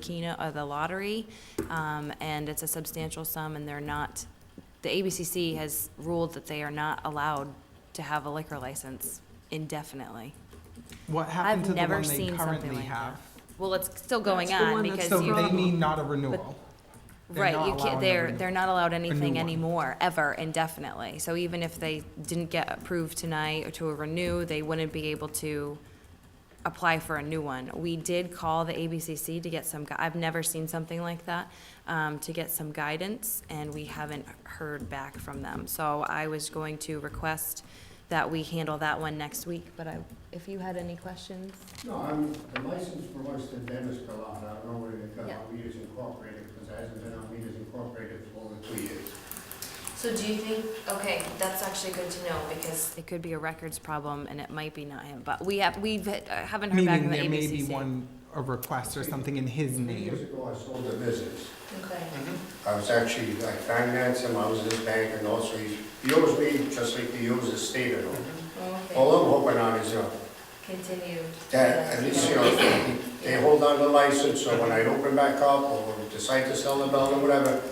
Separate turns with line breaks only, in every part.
Keno, uh, the lottery, um, and it's a substantial sum, and they're not, the ABCC has ruled that they are not allowed to have a liquor license indefinitely.
What happened
I've
to the
never
one they
seen something
currently
like that.
have?
Well, it's still going
That's the
on
one that's
because
So
you.
they mean not a renewal. They're
Right,
not
you
allowing
can't,
a
they're,
renewal.
they're not allowed anything
one.
anymore, ever, indefinitely. So even if they didn't get approved tonight or to renew, they wouldn't be able to apply for a new one. We did call the ABCC to get some, gui- I've never seen something like that, um, to get some guidance, and we haven't heard back from them. So I was going to request that we handle that one next week, but I, if you had any questions?
No, I'm, the license for Oyster Den is still on, I don't know whether it got
Yeah.
on Leaders Incorporated, because it hasn't been on Leaders Incorporated for over two years.
So do you think, okay, that's actually good to know, because. It could be a records problem, and it might be not him, but we have, we haven't heard back
Meaning
from the
there may be
ABCC.
one, a request or something in his
Three years
name.
ago, I sold a business.
Okay.
Mm-hmm.
I was actually, I financed him, I was his bank, and also he, he owes me, just like he owes the state and
Mm-hmm.
all.
Okay,
All I'm hoping on is, uh,
continue.
that, at least, you know, they hold on the license, so when I open back up, or decide to sell the building, whatever,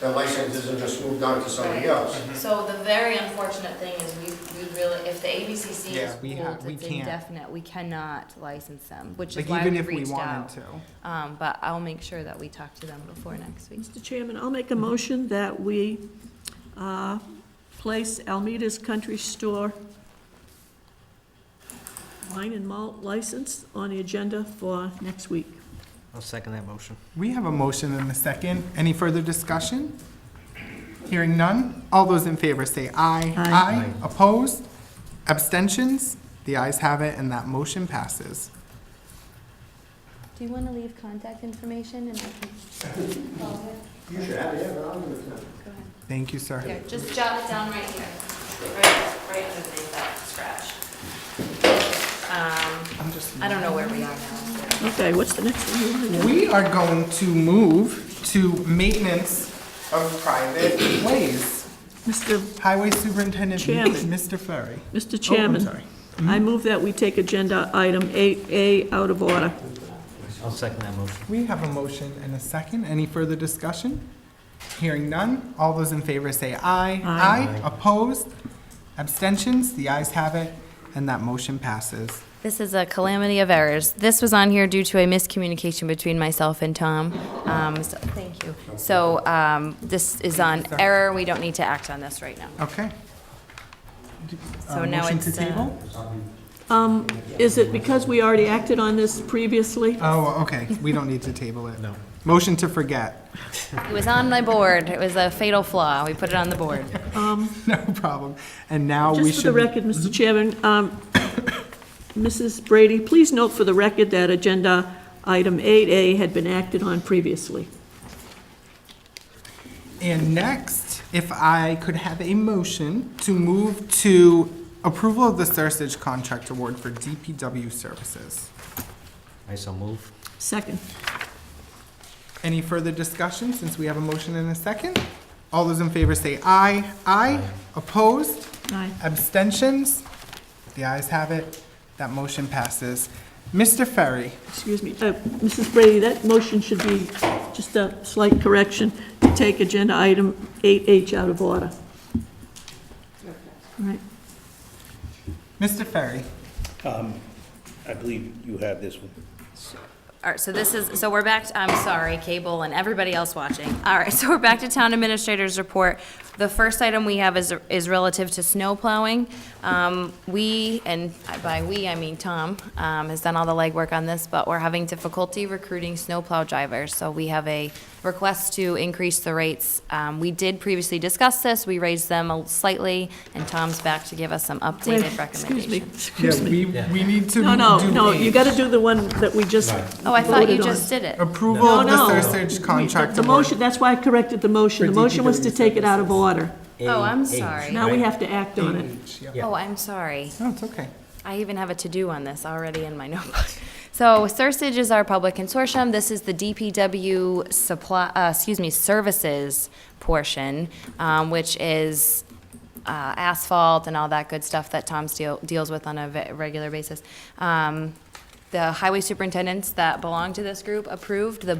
the license isn't just moved on to somebody else.
So the very unfortunate thing is we, we really, if the ABCC
Yeah, we ha- we
it's
can't.
indefinite, we cannot license them, which is
Like
why
even
we
if we
reached
wanted
out.
to.
Um, but I'll make sure that we talk to them before next week.
Mr. Chairman, I'll make a motion that we uh, place Almeida's Country Store wine and malt license on the agenda for next week.
I'll second that motion.
We have a motion and a second. Any further discussion? Hearing none. All those in favor say aye. Aye. Opposed? Abstentions? The ayes have it, and that motion passes.
Do you wanna leave contact information and I can?
You should have, yeah, but I'm with them.
Go ahead.
Thank you, sir.
Here, just jot it down right here, right, right underneath that scratch. Um,
I'm just
I don't know where we are now.
Okay, what's the next one? you wanna do?
We are going to move to maintenance of private ways.
Mr.
Highway Superintendent,
Chairman.
Mr. Ferry.
Mr.
Oh, I'm
Chairman.
sorry.
I move that we take agenda item 8A out of order.
I'll second that motion.
We have a motion and a second. Any further discussion? Hearing none. All those in favor say aye. Aye. Opposed? Abstentions? The ayes have it, and that motion passes.
This is a calamity of errors. This was on here due to a miscommunication between myself and Tom. Um, so- Thank you. So um, this is on error, we don't need to act on this right now.
Okay. Uh,
So now
motion
it's,
to
uh,
table?
Um, Is it because we already acted on this previously?
Oh, okay. We don't need to table it. No. Motion to forget.
It was on my board, it was a fatal flaw, we put it on the board.
No problem. And now we
Just for the
should. Mm-hmm.
record, Mr. Chairman, um, Mrs. Brady, please note for the record that agenda item 8A had been acted on previously.
And next, if I could have a motion to move to approval of the Sarsage contract award for DPW services.
I so move.
Second.
Any further discussion, since we have a motion and a second? All those in favor say aye. Aye. Opposed?
Aye.
Abstentions? The ayes have it. That motion passes. Mr. Ferry,
Excuse me, uh, Mrs. Brady, that motion should be just a slight correction to take agenda item 8H out of order. All right.
Mr. Ferry,
I believe you have this one.
All right, so this is, so we're back, to- I'm sorry, cable and everybody else watching. All right, so we're back to town administrator's report. The first item we have is, is relative to snow plowing. Um, we, and by we, I mean Tom, um, has done all the legwork on this, but we're having difficulty recruiting snow plow drivers. So we have a request to increase the rates. Um, we did previously discuss this, we raised them a- slightly, and Tom's back to give us some
Wait,
updated
Excuse me,
recommendations.
yeah,
excuse me.
we, we need to do
No, no, no, you
eight.
got to do the one that we just
Oh, I thought you
voted on.
just did it.
Approval
No,
of the
no.
Sarsage contract
The
award.
motion, that's why I corrected the motion. The
For
motion was to
DPW
take it out of
services.
order.
Oh, I'm
Eight, eight,
sorry.
Now we
right?
have to act on it.
Eight, yeah.
Oh, I'm sorry.
No, it's okay.
I even have a to-do on this already in my notebook. So Sursage is our public consortium. This is the DPW supply, uh, excuse me, services portion, um, which is, uh, asphalt and all that good stuff that Tom deal, deals with on a ve- regular basis. Um, the highway superintendents that belong to this group approved the